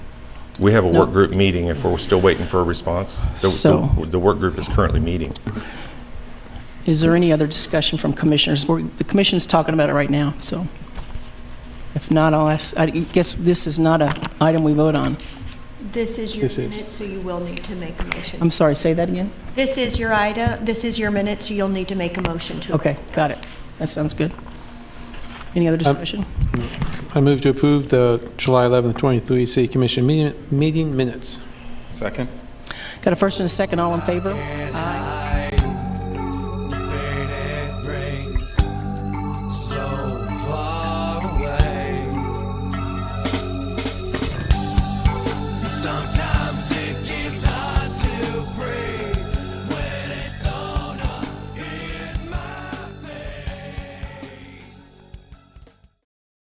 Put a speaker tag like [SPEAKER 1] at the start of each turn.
[SPEAKER 1] We have a work
[SPEAKER 2] No.
[SPEAKER 1] group meeting if we're still waiting for a response. The- the-
[SPEAKER 2] So-
[SPEAKER 1] The work group is currently meeting.
[SPEAKER 2] Is there any other discussion from commissioners? We're- The commission's talking about it right now, so if not, I'll ask, I guess this is not a item we vote on.
[SPEAKER 3] This is your
[SPEAKER 4] This is.
[SPEAKER 3] minute, so you will need to make a
[SPEAKER 2] I'm
[SPEAKER 3] motion.
[SPEAKER 2] sorry, say that again?
[SPEAKER 3] This is your item, this is your minute, so you'll need to make a motion to.
[SPEAKER 2] Okay, got it. That sounds good. Any other discussion?
[SPEAKER 4] I move to approve the July 11th, 23 City Commission meeting- meeting minutes.
[SPEAKER 5] Second?
[SPEAKER 2] Got a first and a second, all in favor? Aye.